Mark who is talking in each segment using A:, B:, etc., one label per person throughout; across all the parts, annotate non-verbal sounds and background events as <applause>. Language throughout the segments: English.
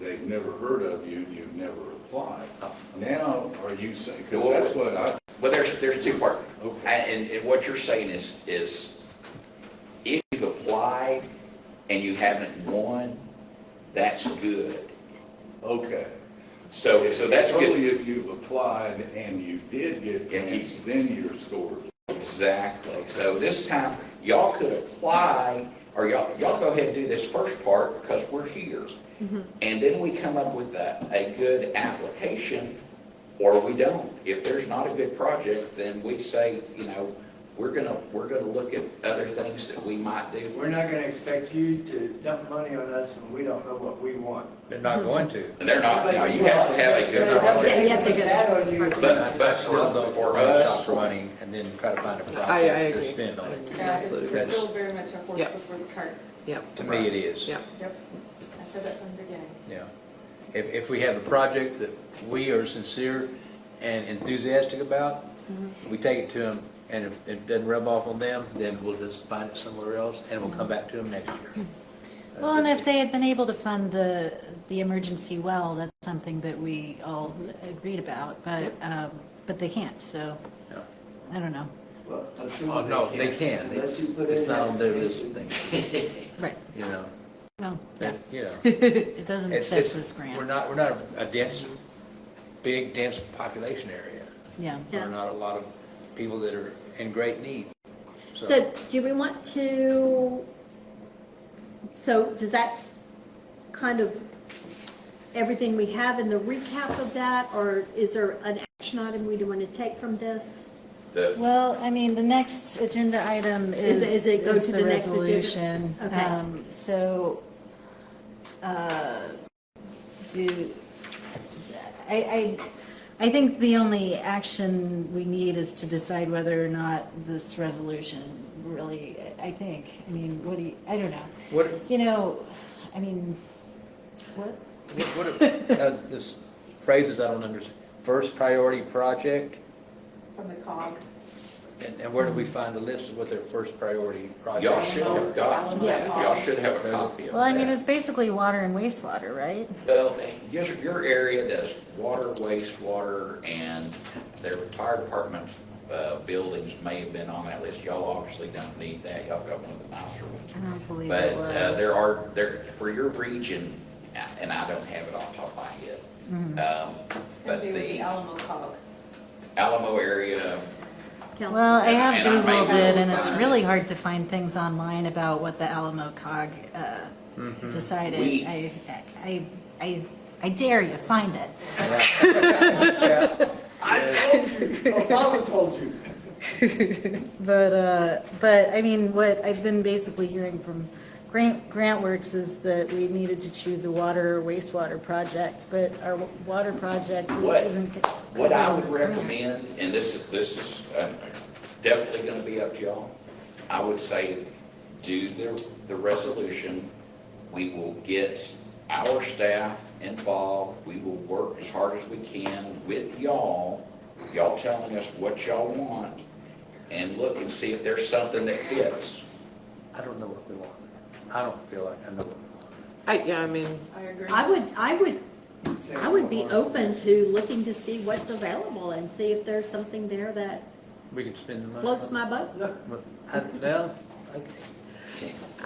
A: they've never heard of you, you've never applied. Now, are you saying, because
B: Oh. Well-
A: that's what I,
B: Well, there's, there's two parts.
A: Okay.
B: And, and what you're saying is, is if you've applied and you haven't won, that's good.
A: okay.
B: So, so that's good.
A: Only if you've applied and you did get
B: Yeah, he-
A: grants, then you're scored.
B: Exactly. So this time, y'all could apply, or y'all, y'all go ahead and do this first part because we're here. And then we come up with a, a good application, or we don't. If there's not a good project, then we say, you know, we're gonna, we're gonna look at other things that we might do.
C: We're not gonna expect you to dump money on us when we don't know what we want.
D: They're not going to.
B: And they're not, no, you have to have a
C: But it doesn't
B: good.
E: Yeah, you have to get-
C: bad on you.
B: But, but
D: Still
B: for,
D: though,
B: for
D: us,
B: us,
D: running and then try to find a
F: I
D: project to
F: agree.
D: spend on it.
G: Yeah, it's
F: Absolutely.
G: it's still very much a horse
F: Yep.
G: before the cart.
F: Yeah,
D: To me, it is.
F: yeah.
G: Yep. I said that from the beginning.
D: Yeah. If, if we have a project that we are sincere and enthusiastic about,
F: Mm-hmm.
D: we take it to them, and if it doesn't rub off on them, then we'll just find it somewhere else, and we'll come back to them next
F: Hmm.
D: year.
E: Well, and if they had been able to fund the, the emergency well, that's something that we all agreed about, but, um, but they can't, so,
D: Yeah.
E: I don't know.
C: Well,
D: Oh,
C: assume
D: no, they can.
C: Unless you put in.
D: It's not on their list of
C: application. <laughs>
D: things,
E: Right,
D: you know?
E: well, yeah. <laughs>
D: But, You know.
E: it doesn't
D: It's-
E: fit
D: it's-
E: this
D: We're
E: grant,
D: not, we're not a dense, big, dense population area.
E: yeah.
D: There
H: Yeah.
D: are not a lot of people that are in great need.
H: So do we want to, so does that kind of, everything we have in the recap of that, or is there an action item we do want to take from this?
B: the,
E: Well, I mean, the next agenda item is,
H: Is it- is it go
E: is
H: to
E: the
H: the next agenda?
E: resolution.
H: Okay.
E: Um, So, uh, do, I, I, I think the only action we need is to decide whether or not this resolution really, I think, I mean, what do you, I don't know.
D: What,
E: You know, I mean, what?
D: what, what, uh, this phrases I don't understand, first priority project,
G: From the cog.
D: and, and where do we find a list of what their first priority project?
B: y'all
D: is?
B: should have got,
E: Yeah.
B: y'all should have a copy of that.
E: Well, I mean, it's basically water and wastewater, right?
B: Well, your, your area does water, wastewater, and their fire department's, uh, buildings may have been on that list. Y'all obviously don't need that. Y'all got one of the nicer ones.
E: I don't believe
B: But,
E: it
B: uh,
E: was.
B: there are, there, for your region, a- and I don't have it off the top of my head.
E: Mm-hmm.
B: Um,
G: It's gonna
B: but
G: be with the
B: the
G: Alamo cog.
B: Alamo area,
H: Council?
E: Well, I
B: And
E: have
B: I may
E: Googled
B: have
E: it,
B: to
E: and it's
B: find-
E: really hard to find things online about what the Alamo cog uh, decided.
B: Mm-hmm. We-
E: I, I, I, I dare you, find it.
C: I told you, Obama told you.
E: But, uh, but, I mean, what I've been basically hearing from Grant, Grant Works is that we needed to choose a water or wastewater project, but our wa- water project
B: What-
E: isn't.
B: What I would
E: covered in this grant.
B: recommend, and this is, this is uh, definitely gonna be up to y'all, I would say, do the, the resolution. We will get our staff involved, we will work as hard as we can with y'all, y'all telling us what y'all want, and look and see if there's something that fits.
D: I don't know what we want. I don't feel like I know what we want.
F: I, yeah, I mean,
G: I agree.
H: I would, I would,
C: Say
H: I would be
C: Obama.
H: open to looking to see what's available and see if there's something there that
D: We can spend the money.
H: floats my boat.
C: No,
D: Well, I, well,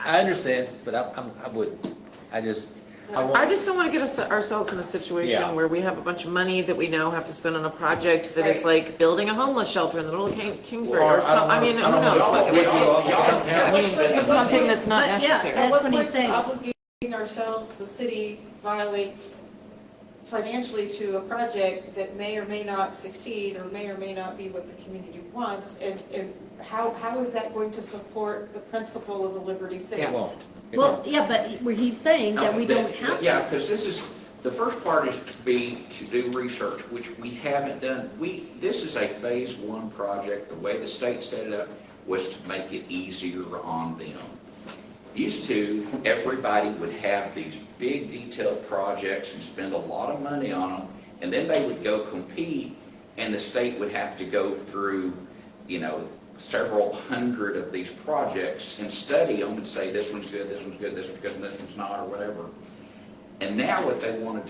D: I, I understand, but I, I'm, I wouldn't. I just, I want.
F: I just don't want to get us, ourselves in a situation
D: Yeah.
F: where we have a bunch of money that we now have to spend on a project that is
G: Right.
F: like building a homeless shelter in the middle of King- Kingsbury
D: Well, I
F: or
D: don't
F: some, I
D: wanna-
F: mean, who
D: I don't
F: knows?
D: wanna-
F: what
B: Y'all,
F: it
B: y'all,
F: would
B: y'all don't
F: be. I
B: have
F: mean,
B: to spend the
F: it's something
B: money.
F: that's not
H: But, yeah,
F: necessary.
H: That's what he's
G: At
H: saying.
G: what point obligating ourselves, the city violate financially to a project that may or may not succeed or may or may not be what the community wants? And, and how, how is that going to support the principle of the Liberty City?
D: It won't. It
H: Well,
D: won't.
H: yeah, but where he's saying that we don't have to.
B: Oh, Yeah, because this is, the first part is to be, to do research, which we haven't done. We, this is a phase one project. The way the state set it up was to make it easier on them. Used to, everybody would have these big detailed projects and spend a lot of money on them, and then they would go compete, and the state would have to go through, you know, several hundred of these projects and study them and say, this one's good, this one's good, this one's good, and this one's not, or whatever. And now what they want to do